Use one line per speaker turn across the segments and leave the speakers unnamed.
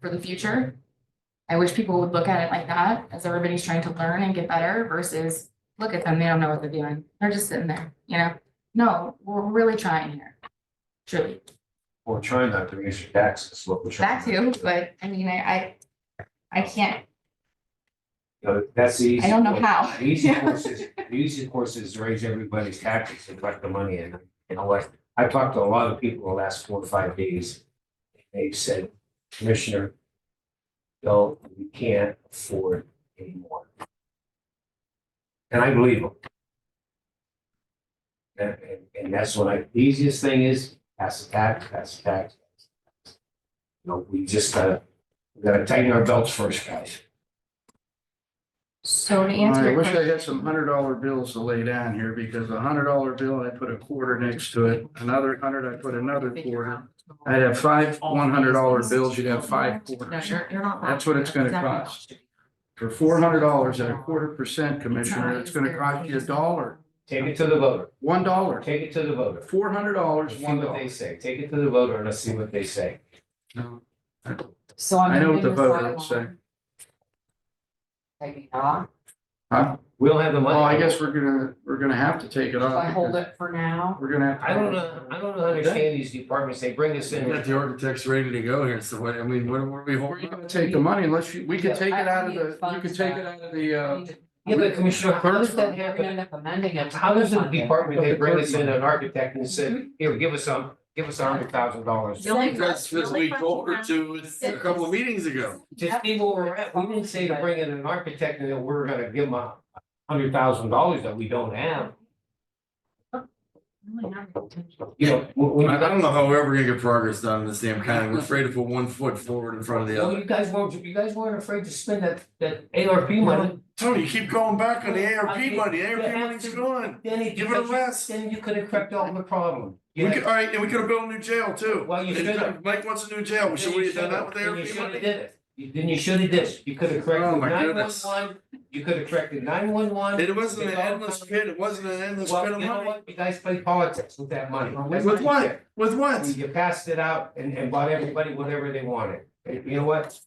for the future. I wish people would look at it like that, as everybody's trying to learn and get better versus, look at them, they don't know what they're doing, they're just sitting there, you know? No, we're really trying here, truly,
We're trying not to raise your taxes, what we're trying.
that too, but I mean, I, I, I can't,
So That's the easy.
I don't know
way.
how.
The easy course is, the easy course is to raise everybody's taxes and collect the money and, you know what? I've talked to a lot of people the last four or five days. They've said, Commissioner, no, we can't afford anymore. And I believe them. And, and, and that's what I, the easiest thing is pass the tax, pass the tax. You know, we just gotta, we gotta tighten our belts first, guys.
So to answer.
I
your
wish I
question-
had some hundred dollar bills to lay down here because a hundred dollar bill, I put a quarter next to it, another hundred, I put another
Figure
quarter.
out.
I'd have five one hundred dollar bills, you'd have five
No,
quarters.
you're, you're not. wrong.
That's what it's gonna
Exactly.
cost. For four hundred dollars at a quarter percent, Commissioner, it's gonna cost you a dollar,
Take it to the voter.
one dollar.
Take it to the voter.
Four hundred dollars,
Let's see
one
what they
dollar.
say. Take it to the voter and let's see what they say.
No.
So I'm.
I know what the
moving
voter
sidewalk.
would say.
Maybe not,
Huh?
We don't have the
Oh,
money.
Well, I guess we're gonna, we're gonna have to take it
if
off.
I hold
because
it for now,
We're gonna have. to-
I don't know, I don't understand these departments. They bring us in.
Got the architects ready to go here, so what, I mean, what were we
We're
holding?
gonna take the money unless you, we could take it out
I
of
need
the, you
funds
could take
back.
it out of the, uh.
Yeah, but Commissioner, how does that
we're gonna
happen?
end up amending it.
How does the department, they bring us in an architect and said, here, give us some, give us a hundred thousand dollars.
The only-
That's
the
just
only
we told her
question
to, it's a couple of meetings ago.
Just be where we're at. We didn't say to bring in an architect and then we're gonna give them a hundred thousand dollars that we don't have.
Really not the potential.
You know, when, when
I
you
I don't
guys,
know how we're ever gonna get progress done in this damn county, we're afraid to put one foot forward in front of the
well,
other.
you guys weren't, you guys weren't afraid to spend that, that ARP money.
Tony, you keep going back on the ARP
I-
money,
you
ARP
have
money's
to-
gone.
Danny,
Give it a rest.
Then you could have cracked out the problem.
We
You
could, all right, and we could have built a new jail too.
Well, you
And
should've.
Mike wants a new jail, we should we have done that with
Then you
ARP
should have
money?
did it. You- Then you should have did. it. You could have
Oh,
corrected
my
nine one
goodness.
one, you could have corrected nine one one.
It wasn't an endless pit, it wasn't an endless
Well,
pit of
you know
money.
what? You guys played politics with that money. That's
With
you
what?
did.
With what?
You passed it out and, and bought everybody whatever they wanted. And You know what?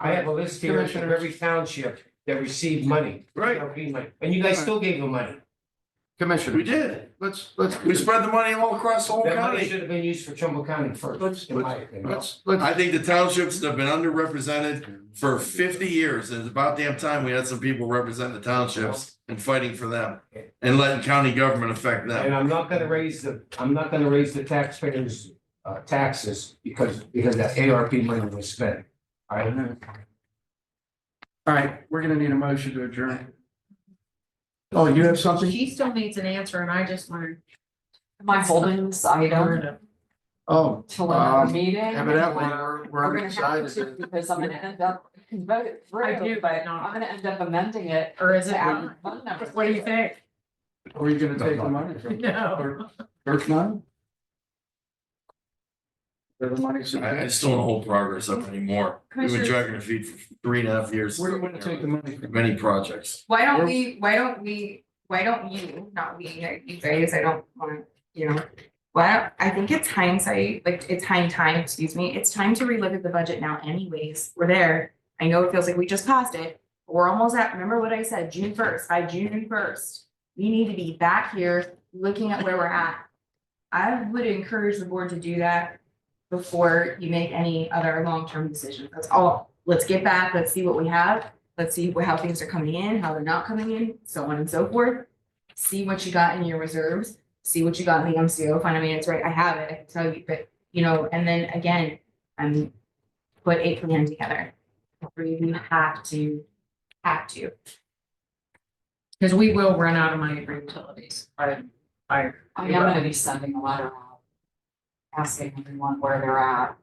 I have a list here of every township that received money.
Right,
ARP money, And you guys still gave them money.
we
Commissioner,
did.
let's, let's,
We spread the money all across the whole
That money
county.
should have been used for Trumbull County first, in my opinion.
let's, let's.
I think the townships have been underrepresented for fifty years, and it's about damn time we had some people representing the townships and fighting for them. And letting county government affect them.
And I'm not gonna raise the, I'm not gonna raise the taxpayers' uh taxes because because that ARP money was spent. All right,
All right, we're gonna need a motion to adjourn. Oh, you have something?
She still needs an answer and I just learned.
Am I holding this item
Oh,
till another
Um,
meeting?
evidently,
Or-
we're,
We're
we're
gonna have to,
excited.
because I'm gonna end up, vote through,
I do, but not-
I'm gonna end up amending it
Or is
to add fund numbers.
What do you think?
Where are you gonna take the money from?
No.
Or- There's none? There's money.
I, I just don't wanna hold progress up anymore. We've been dragging our feet for three and a half years.
Where are you gonna take the money from?
Many projects.
Why don't we, why don't we, why don't you, not we, like, you guys, I don't want, you know. Why don't, I think it's hindsight, like it's hind time, excuse me, it's time to relook at the budget now anyways, we're there. I know it feels like we just passed it, but we're almost at, remember what I said, June first, by June first. We need to be back here looking at where we're at. I would encourage the board to do that before you make any other long-term decisions. That's all. Let's get back, let's see what we have let's see wh- how things are coming in, how they're not coming in, so on and so forth. See what you got in your reserves, see what you got in the MCO fund, I mean, it's right, I have it, I can tell you, but, you know, and then again, I'm. Put a plan together, or you can have to, have to.
Because we will run out of money for utilities. I, I,
I mean, I'm gonna be sending a letter out. Asking everyone where they're at.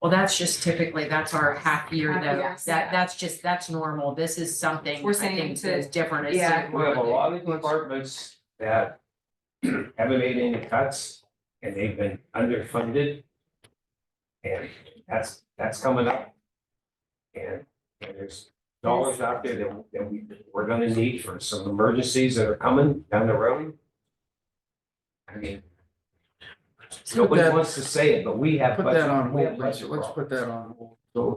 well, that's just typically, that's our half year
Half
though.
year,
That,
yeah.
that's just, that's normal. This is something
We're
I
saying
think
to-
that is different. It's
yeah.
like-
we have a lot of departments that haven't made any cuts and they've been underfunded. And that's, that's coming up. And and there's dollars out there that that we, we're gonna need for some emergencies that are coming down the road. I mean.
Put
Nobody
that-
wants to say it, but we have.
Put
budget-
that on
we have
hold,
budget
let's, let's
problems.
put that on hold.
So